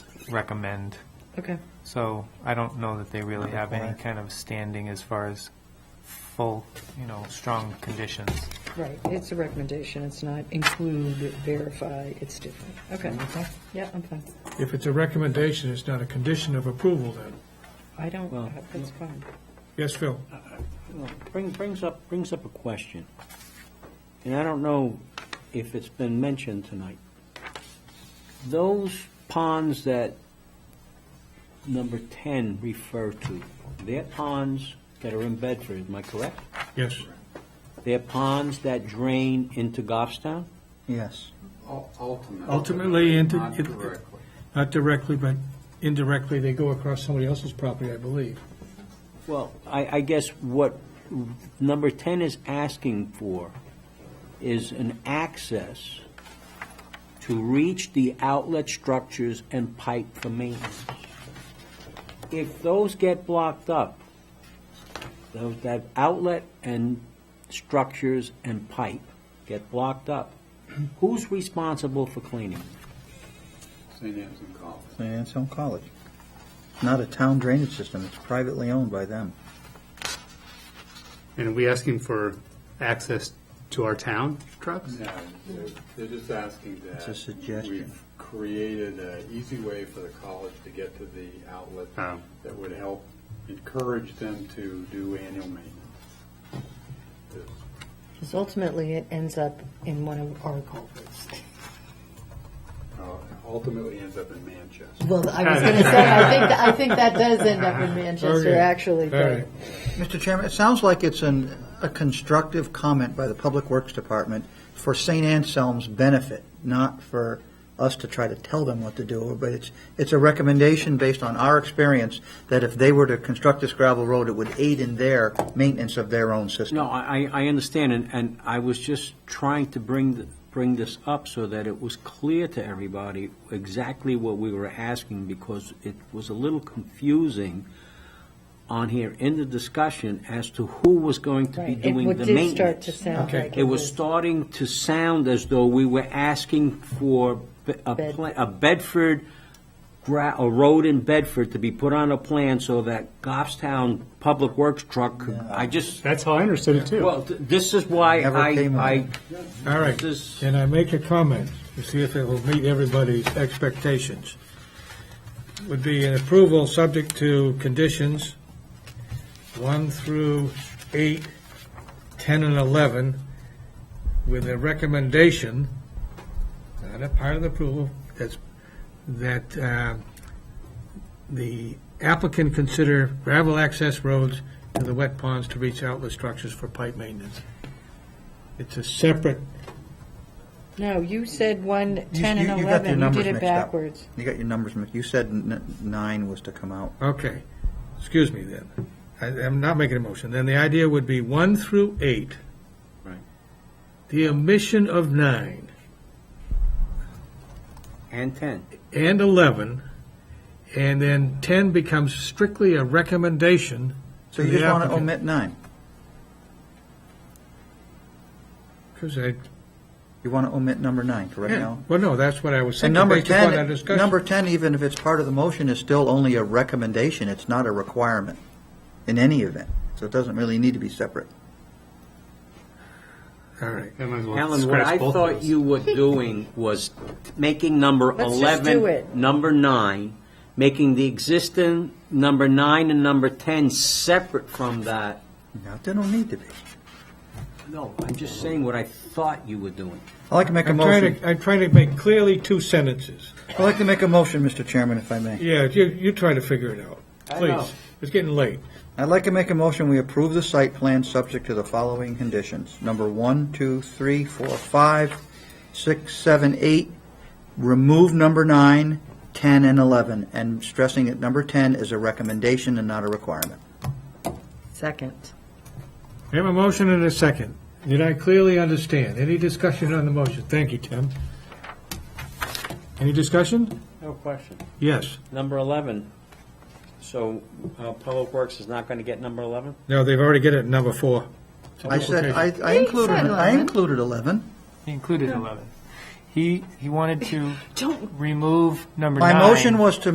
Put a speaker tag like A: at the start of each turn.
A: recommend.
B: Okay.
A: So I don't know that they really have any
B: Require.
A: kind of standing as far as full, you know, strong conditions.
B: Right, it's a recommendation, it's not include, verify, it's different. Okay. Yeah, I'm fine.
C: If it's a recommendation, it's not a condition of approval then.
B: I don't,
D: Well-
B: that's fine.
C: Yes, Phil?
D: Well, bring- Brings up, brings up a question, and I don't know if it's been mentioned tonight. Those ponds that number 10 refer to, they're ponds that are in Bedford, am I correct?
C: Yes.
D: They're ponds that drain into Goffstown?
E: Yes.
F: Ultimately.
C: Ultimately, into-
F: Not
C: it-
F: directly.
C: Not directly, but indirectly, they go across somebody else's property, I believe.
D: Well, I, I guess what number 10 is asking for is an access to reach the outlet structures and pipe for maintenance. If those get blocked up, those, that outlet and structures and pipe get blocked up, who's responsible for cleaning?
F: St. Anne's and College.
E: St. Anselm College. Not a town drainage system, it's privately owned by them.
G: And are we asking for access to our town trucks?
F: No, they're, they're just asking that.
E: It's a suggestion.
F: We've created an easy way for the college to get to the outlet
G: Oh.
F: that would help encourage them to do annual maintenance.
H: Because ultimately, it ends up in one of our culverts.
F: Uh, Ultimately ends up in Manchester.
H: Well, I was going to say, I think, I think that does end up in Manchester,
C: Okay.
H: actually,
C: All right.
H: but
E: Mr. Chairman, it sounds like it's an, a constructive comment by the Public Works Department for St. Anselm's benefit, not for us to try to tell them what to do, but it's, it's a recommendation based on our experience that if they were to construct this gravel road, it would aid in their maintenance of their own system.
D: No, I, I I understand, and, and I was just trying to bring, th- bring this up so that it was clear to everybody exactly what we were asking, because it was a little confusing on here in the discussion as to who was going to be
H: Right. It
D: doing
H: would-
D: the
H: did start to
D: maintenance.
H: sound
C: Okay.
H: like
D: It was starting to sound as though we were asking for b- a
H: Bed-
D: pla- a Bedford, gra- a road in Bedford to be put on a plan so that Goffstown Public Works truck, could- I just,
G: That's how I understood it, too.
D: well, th- this is why
E: Never came up.
D: I,
C: All
D: I,
C: right.
D: this,
C: And I make a comment to see if it will meet everybody's expectations. Would be an approval subject to conditions one through eight, 10, and 11, with a recommendation, not a part of the approval, that's, that uh, the applicant consider gravel access roads to the wet ponds to reach outlet structures for pipe maintenance. It's a separate
B: No, you said one,
E: You-
B: 10
E: you-
B: and
E: you got your
B: 11, you
E: numbers
B: did it
E: mixed up.
B: backwards.
E: You got your numbers, mi- you said n- nine was to come out.
C: Okay, excuse me then. I, I'm not making a motion. Then the idea would be one through eight.
D: Right.
C: The omission of nine
D: and 10.
C: and eleven, and then ten becomes strictly a recommendation.
E: So you
C: the
E: just want to
C: applicant.
E: omit nine?
C: Because I,
E: You want to omit number nine, correct
C: yeah,
E: now?
C: well, no, that's what I was thinking
E: And number
C: based upon our
E: 10,
C: discussion.
E: number 10, even if it's part of the motion, is still only a recommendation, it's not a requirement in any event, so it doesn't really need to be separate.
C: All right,
G: I might as well
D: Alan, what
G: scratch
D: I
G: both of
D: thought
G: those.
D: you were doing was making number
B: Let's just
D: 11,
B: do it.
D: number 9, making the existing number 9 and number 10 separate from that.
E: No, they don't need to be.
D: No, I'm just saying what I thought you were doing.
E: I'd like to make a
C: I'm trying
E: motion,
C: to, I'm trying to make clearly two sentences.
E: I'd like to make a motion, Mr. Chairman, if I may.
C: Yeah, you, you try to figure it out,
D: I know.
C: please. It's getting late.
E: I'd like to make a motion, we approve the site plan subject to the following conditions. Number one, two, three, four, five, six, seven, eight. remove number nine, 10, and 11, and stressing that number 10 is a recommendation and not a requirement.
B: Second.
C: We have a motion and a second. Did I clearly understand? Any discussion on the motion? Thank you, Tim. Any discussion?
D: No question.
C: Yes.
D: Number 11, so uh, Public Works is not going to get number 11?
C: No, they've already got it at number four.
E: I said, I I
H: He
E: included,
H: said
E: I
H: 11.
E: included 11.
A: He included 11. He, he wanted to
B: Don't
A: remove number
E: My
A: nine.
E: motion was to